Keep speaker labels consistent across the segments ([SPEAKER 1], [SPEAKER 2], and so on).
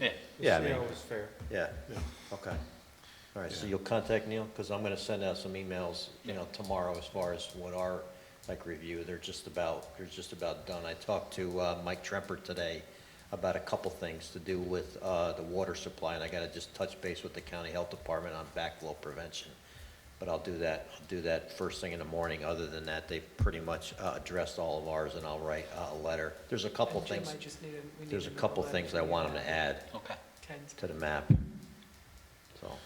[SPEAKER 1] Yeah.
[SPEAKER 2] Yeah, I
[SPEAKER 3] See
[SPEAKER 2] mean-
[SPEAKER 3] how it's fair.
[SPEAKER 2] Yeah, okay. All right, so you'll contact Neil, because I'm gonna send out some emails, you know, tomorrow as far as what our, like, review, they're just about, they're just about done. I talked to, uh, Mike Tremper today about a couple things to do with, uh, the water supply, and I gotta just touch base with the county health department on backflow prevention. But I'll do that, I'll do that first thing in the morning, other than that, they've pretty much, uh, addressed all of ours, and I'll write uh, a letter. There's a couple
[SPEAKER 4] And Jim,
[SPEAKER 2] things,
[SPEAKER 4] I just need a- we need
[SPEAKER 2] there's a
[SPEAKER 4] another
[SPEAKER 2] couple
[SPEAKER 4] letter
[SPEAKER 2] things
[SPEAKER 4] from
[SPEAKER 2] I
[SPEAKER 4] you.
[SPEAKER 2] want them to add
[SPEAKER 1] Okay.
[SPEAKER 4] Ken's-
[SPEAKER 2] to the map, so,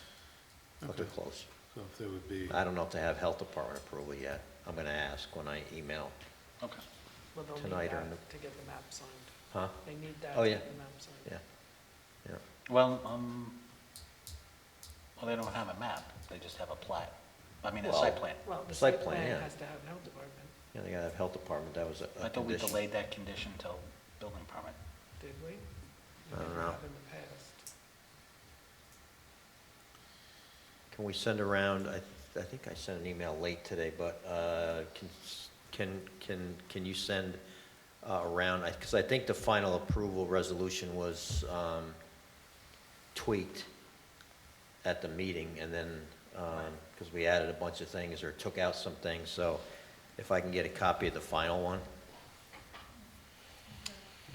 [SPEAKER 2] but they're
[SPEAKER 3] Okay.
[SPEAKER 2] close.
[SPEAKER 3] So if there would be,
[SPEAKER 2] I don't know if they have health department approval yet, I'm gonna ask when I email,
[SPEAKER 1] Okay.
[SPEAKER 4] well, they'll need
[SPEAKER 2] tonight or
[SPEAKER 4] that
[SPEAKER 2] in the-
[SPEAKER 4] To get the map signed.
[SPEAKER 2] huh?
[SPEAKER 4] They need that
[SPEAKER 2] Oh,
[SPEAKER 4] to
[SPEAKER 2] yeah.
[SPEAKER 4] get the map signed.
[SPEAKER 2] Yeah, yeah,
[SPEAKER 1] Well, um, well, they don't have a map. They just have a plat. I mean, a site
[SPEAKER 2] Well-
[SPEAKER 1] plan.
[SPEAKER 4] Well, the
[SPEAKER 2] Site
[SPEAKER 4] site
[SPEAKER 2] plan, yeah.
[SPEAKER 4] plan has to have health department,
[SPEAKER 2] yeah, they gotta have health department, that was a-
[SPEAKER 1] I
[SPEAKER 2] a
[SPEAKER 1] thought we
[SPEAKER 2] condition.
[SPEAKER 1] delayed that condition till building permit.
[SPEAKER 4] did we? We
[SPEAKER 2] I don't
[SPEAKER 4] never
[SPEAKER 2] know.
[SPEAKER 4] have In the past.
[SPEAKER 2] Can we send around, I, I think I sent an email late today, but, uh, can, s- can, can, can you send uh, around, I, cause I think the final approval resolution was, um, tweaked at the meeting, and then, um, because we added a bunch of things or took out some things, so if I can get a copy of the final one,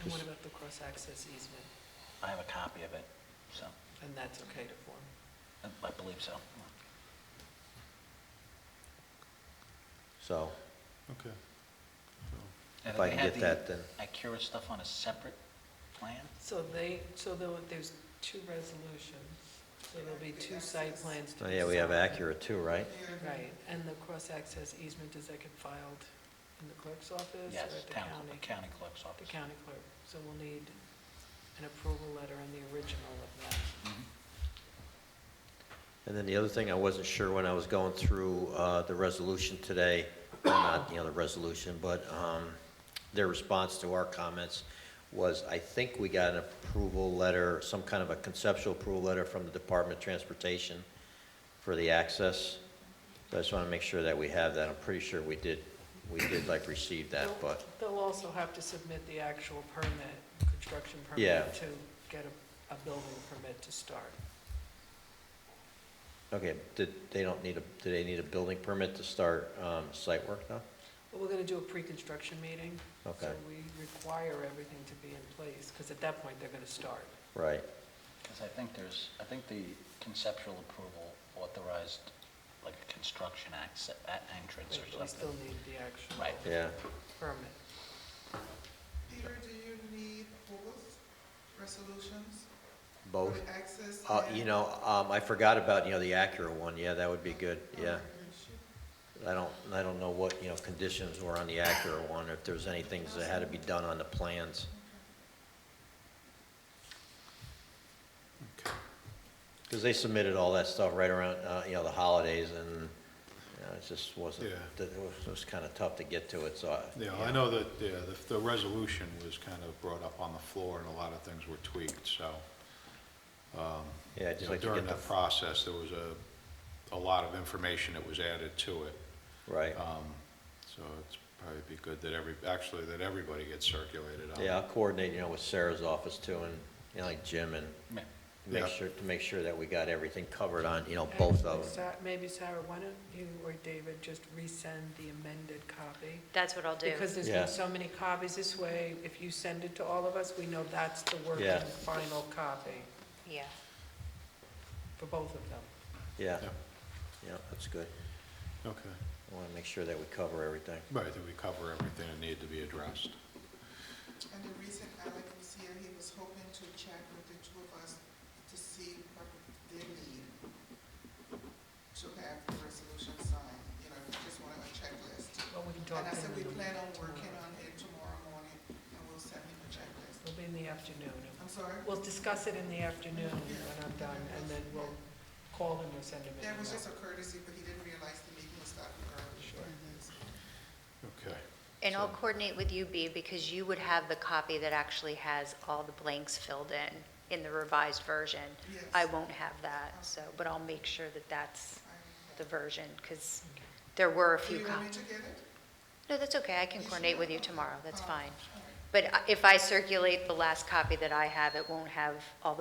[SPEAKER 4] And what
[SPEAKER 2] Just-
[SPEAKER 4] about the cross-access easement?
[SPEAKER 1] I have a copy of it, so,
[SPEAKER 4] And that's okay to form.
[SPEAKER 1] I I believe so.
[SPEAKER 2] so
[SPEAKER 3] okay.
[SPEAKER 1] And
[SPEAKER 2] if I
[SPEAKER 1] they
[SPEAKER 2] can
[SPEAKER 1] had
[SPEAKER 2] get that, then,
[SPEAKER 1] the Acura stuff on a separate plan?
[SPEAKER 4] So they, so there, there's two resolutions, so there'll be two site plans to
[SPEAKER 2] oh,
[SPEAKER 4] be
[SPEAKER 2] yeah, we have
[SPEAKER 4] signed.
[SPEAKER 2] Acura too, right?
[SPEAKER 4] Right, and the cross-access easement, does that get filed in the clerk's office?
[SPEAKER 1] Yes,
[SPEAKER 4] or at the
[SPEAKER 1] town,
[SPEAKER 4] county?
[SPEAKER 1] county clerk's
[SPEAKER 4] The
[SPEAKER 1] office.
[SPEAKER 4] county clerk, so we'll need an approval letter and the original of that.
[SPEAKER 1] Mhm.
[SPEAKER 2] And then the other thing, I wasn't sure when I was going through uh, the resolution today, or not, you know, the resolution, but um, their response to our comments was, I think we got an approval letter, some kind of a conceptual approval letter from the Department of Transportation for the access. So I just want to make sure that we have that. I'm pretty sure we did, we did like receive that, but,
[SPEAKER 4] They'll also have to submit the actual permit, construction
[SPEAKER 2] Yeah.
[SPEAKER 4] permit, to get a, a building permit to start.
[SPEAKER 2] okay, did, they don't need a, do they need a building permit to start um, site work now?
[SPEAKER 4] But we're gonna do a pre-construction meeting. So
[SPEAKER 2] Okay,
[SPEAKER 4] we require everything to be in place, because at that point, they're gonna start.
[SPEAKER 2] right,
[SPEAKER 1] Because I think there's, I think the conceptual approval authorized like a construction access, entrance
[SPEAKER 4] But
[SPEAKER 1] or
[SPEAKER 4] we still
[SPEAKER 1] something.
[SPEAKER 4] need the actual
[SPEAKER 1] Right.
[SPEAKER 2] yeah.
[SPEAKER 4] permit.
[SPEAKER 5] Peter, do you need both resolutions? for
[SPEAKER 2] Both?
[SPEAKER 5] the Access.
[SPEAKER 2] Uh,
[SPEAKER 5] and-
[SPEAKER 2] you know, um, I forgot about, you know, the Acura one, yeah, that would be good,
[SPEAKER 5] Oh,
[SPEAKER 2] yeah.
[SPEAKER 5] good. She-
[SPEAKER 2] I don't, I don't know what, you know, conditions were on the Acura one, if there's any things that had to be done on the plans.
[SPEAKER 3] Okay.
[SPEAKER 2] Because they submitted all that stuff right around, uh, you know, the holidays, and, you know, it just wasn't,
[SPEAKER 3] Yeah.
[SPEAKER 2] that- it was, it was kind of tough to get to it, so. I-
[SPEAKER 3] Yeah, I know that, yeah, the, the resolution was kind of brought up on the floor and a lot of things were tweaked, so. um,
[SPEAKER 2] Yeah, I'd
[SPEAKER 3] you
[SPEAKER 2] just
[SPEAKER 3] know,
[SPEAKER 2] like to
[SPEAKER 3] During
[SPEAKER 2] get
[SPEAKER 3] the
[SPEAKER 2] the,
[SPEAKER 3] process, there was a, a lot of information that was added to it.
[SPEAKER 2] right,
[SPEAKER 3] Um, So it's probably be good that every, actually, that everybody gets circulated on.
[SPEAKER 2] yeah, I'll coordinate, you know, with Sarah's office too, and, you know, like Jim, and
[SPEAKER 1] Yeah.
[SPEAKER 2] make
[SPEAKER 3] Yeah.
[SPEAKER 2] sure, to make sure that we got everything covered on, you know, both of them.
[SPEAKER 4] Sa- Maybe Sarah, why don't you or David just resend the amended copy?
[SPEAKER 6] That's what I'll do.
[SPEAKER 4] Because there's
[SPEAKER 2] Yeah.
[SPEAKER 4] been so many copies this way, if you send it to all of us, we know that's the working
[SPEAKER 2] Yeah.
[SPEAKER 4] final copy
[SPEAKER 6] Yeah.
[SPEAKER 4] for both of them.
[SPEAKER 2] Yeah,
[SPEAKER 3] Yeah,
[SPEAKER 2] yeah, that's good.
[SPEAKER 3] Okay,
[SPEAKER 2] I want to make sure that we cover everything.
[SPEAKER 3] right, that we cover everything that needed to be addressed.
[SPEAKER 5] And the reason Alec was here, he was hoping to chat with the two of us to see what they need to have the resolution signed, you know, we just wanted a checklist.
[SPEAKER 4] Well, we can talk
[SPEAKER 5] And I
[SPEAKER 4] to
[SPEAKER 5] said,
[SPEAKER 4] them
[SPEAKER 5] we
[SPEAKER 4] in the
[SPEAKER 5] plan on
[SPEAKER 4] morning
[SPEAKER 5] working
[SPEAKER 4] tomorrow.
[SPEAKER 5] on it tomorrow morning, and we'll send him a checklist.
[SPEAKER 4] It'll be in the afternoon.
[SPEAKER 5] I'm sorry?
[SPEAKER 4] We'll discuss it in the afternoon when I'm done, and then we'll call him or send him an
[SPEAKER 5] That was
[SPEAKER 4] email.
[SPEAKER 5] just a courtesy, but he didn't realize the meeting was starting early.
[SPEAKER 4] Sure.
[SPEAKER 3] Okay,
[SPEAKER 6] And I'll
[SPEAKER 3] So-
[SPEAKER 6] coordinate with you, B, because you would have the copy that actually has all the blanks filled in, in the revised version.
[SPEAKER 5] Yes.
[SPEAKER 6] I won't have that, so, but I'll make sure that that's
[SPEAKER 5] I-
[SPEAKER 6] the version, because there were a
[SPEAKER 5] Do
[SPEAKER 6] few
[SPEAKER 5] you want me
[SPEAKER 6] copies.
[SPEAKER 5] to get it?
[SPEAKER 6] No, that's okay, I can
[SPEAKER 5] You
[SPEAKER 6] coordinate
[SPEAKER 5] sure?
[SPEAKER 6] with you tomorrow, that's
[SPEAKER 5] Oh,
[SPEAKER 6] fine. uh,
[SPEAKER 5] all right.
[SPEAKER 6] But I- if I circulate the last copy that I have, it won't have all the